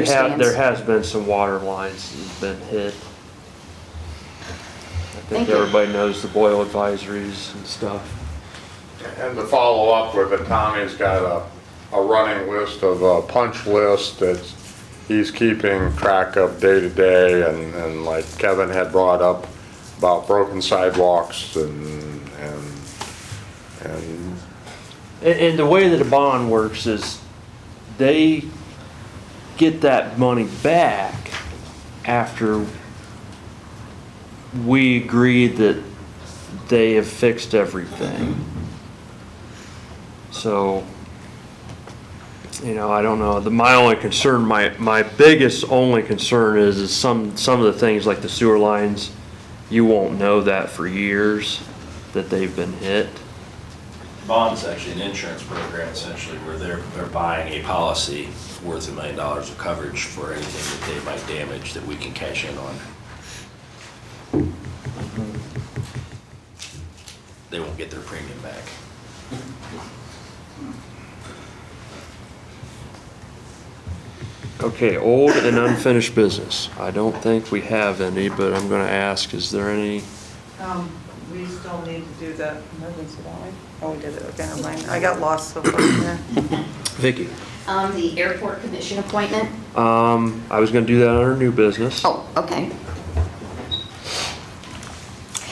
There ha- understands. there has been some water lines that's been hit. I Thank think you. everybody knows the boil advisories and stuff. And to follow up with it, Tommy's got a, a running list of, a punch list that he's keeping track of day to day and, and like Kevin had brought up about broken sidewalks and, and, and And, and the way that a bond works is they get that money back after we agree that they have fixed everything. So, you know, I don't know, the, my only concern, my, my biggest only concern is, is some, some of the things like the sewer lines, you won't know that for years, that they've been hit. Bond's actually an insurance program essentially where they're, they're buying a policy worth a million dollars of coverage for anything that they might damage that we can cash in on. They won't get their premium back. Okay, old and unfinished business. I don't think we have any, but I'm gonna ask, is there any? Um, we still need to do the emergency, don't we? Oh, we did it, okay, never mind. I got lost so far in there. Vicky. Um, the airport commission appointment? Um, I was gonna do that under new business. Oh, okay.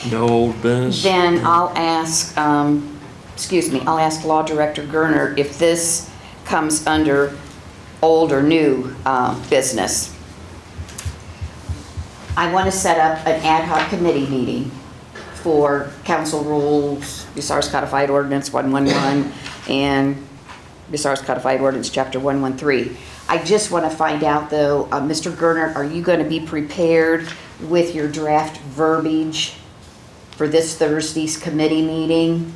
No old business. Then I'll ask, um, excuse me, I'll ask Law Director Gerner if this comes under old or new, uh, business. I want to set up an ad hoc committee meeting for council rules, Bucyrus Codified Ordinance 111, and Bucyrus Codified Ordinance Chapter 113. I just want to find out, though, uh, Mr. Gerner, are you going to be prepared with your draft verbiage for this Thursday's committee meeting?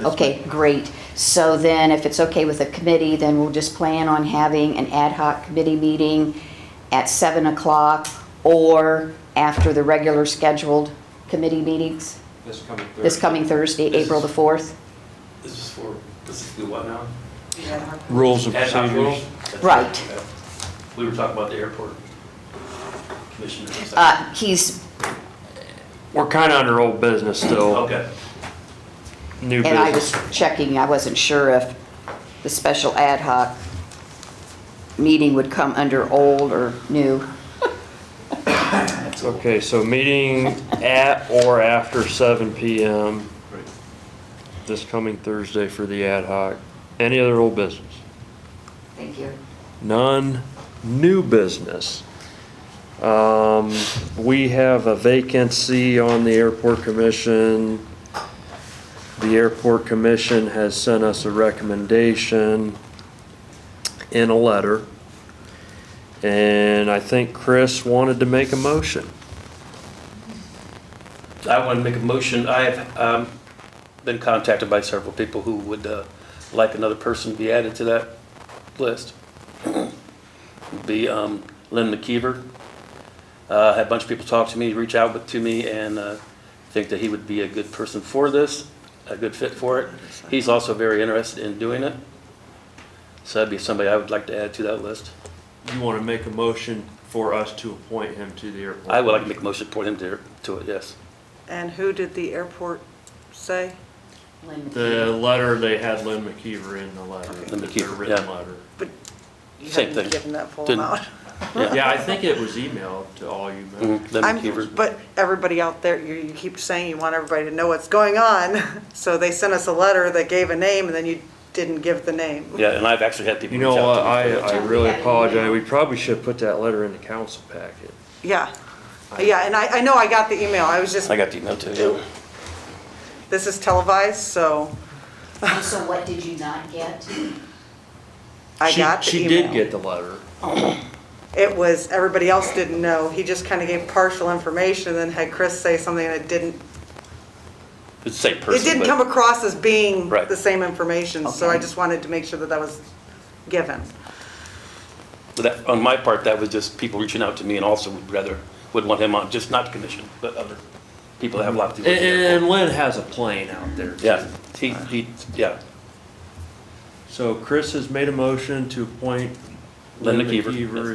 Okay, great. So then, if it's okay with the committee, then we'll just plan on having an ad hoc committee meeting at 7 o'clock or after the regular scheduled committee meetings This coming Thursday. this coming Thursday, This April is- the 4th. This is for, this is the what now? Yeah. Rules and Ad hoc procedures. rules? That's Right. okay. We were talking about the airport commissioner. Uh, He's, We're kinda under old business still, Okay. new and I was business. checking, I wasn't sure if the special ad hoc meeting would come under old or new. Okay, so meeting at or after seven PM Right. this coming Thursday for the ad hoc. Any other old business? Thank you. None, new business. Um, we have a vacancy on the airport commission. The airport commission has sent us a recommendation in a letter. And I think Chris wanted to make a motion. I want to make a motion. I have um, been contacted by several people who would uh, like another person to be added to that list. Be um, Lynn McKeever. Uh, Had a bunch of people talk to me, reach out with- to me, and uh, think that he would be a good person for this, a good fit for it. He's also very interested in doing it. So that'd be somebody I would like to add to that list. You want to make a motion for us to appoint him to the airport? I would like to make a motion for him to to it, yes. And who did the airport say? The letter, they had Lynn McKeever in the letter, Lynn the their McKeever, written yeah. letter. You Same haven't thing. Given that full Didn't- amount. Yeah. Yeah, I think it was emailed to all you members. Mhm, Lynn I'm- McKeever. But everybody out there, you, you keep saying you want everybody to know what's going on, so they sent us a letter that gave a name, and then you didn't give the name. Yeah, and I've actually had people You reach know, out to me. I, for that. I really apologize, we probably should have put that letter in the council packet. Yeah, yeah, and I, I know I got the email, I was just, I got the email too. yeah. this is televised, so And so what did you not get? I She- got the She email. did get the letter. It was, everybody else didn't know, he just kind of gave partial information, and then had Chris say something that didn't It's the same person. It didn't but- come across as being Right. the same information, so I Okay. just wanted to make sure that that was given. But that, on my part, that was just people reaching out to me and also would rather, would want him on, just not the commission, but other people that have a lot to And, do with it. and Lynn has a plane out there. too. Yeah, he, he, yeah, So Chris has made a motion to appoint Lynn Lynn McKeever. McKeever yes.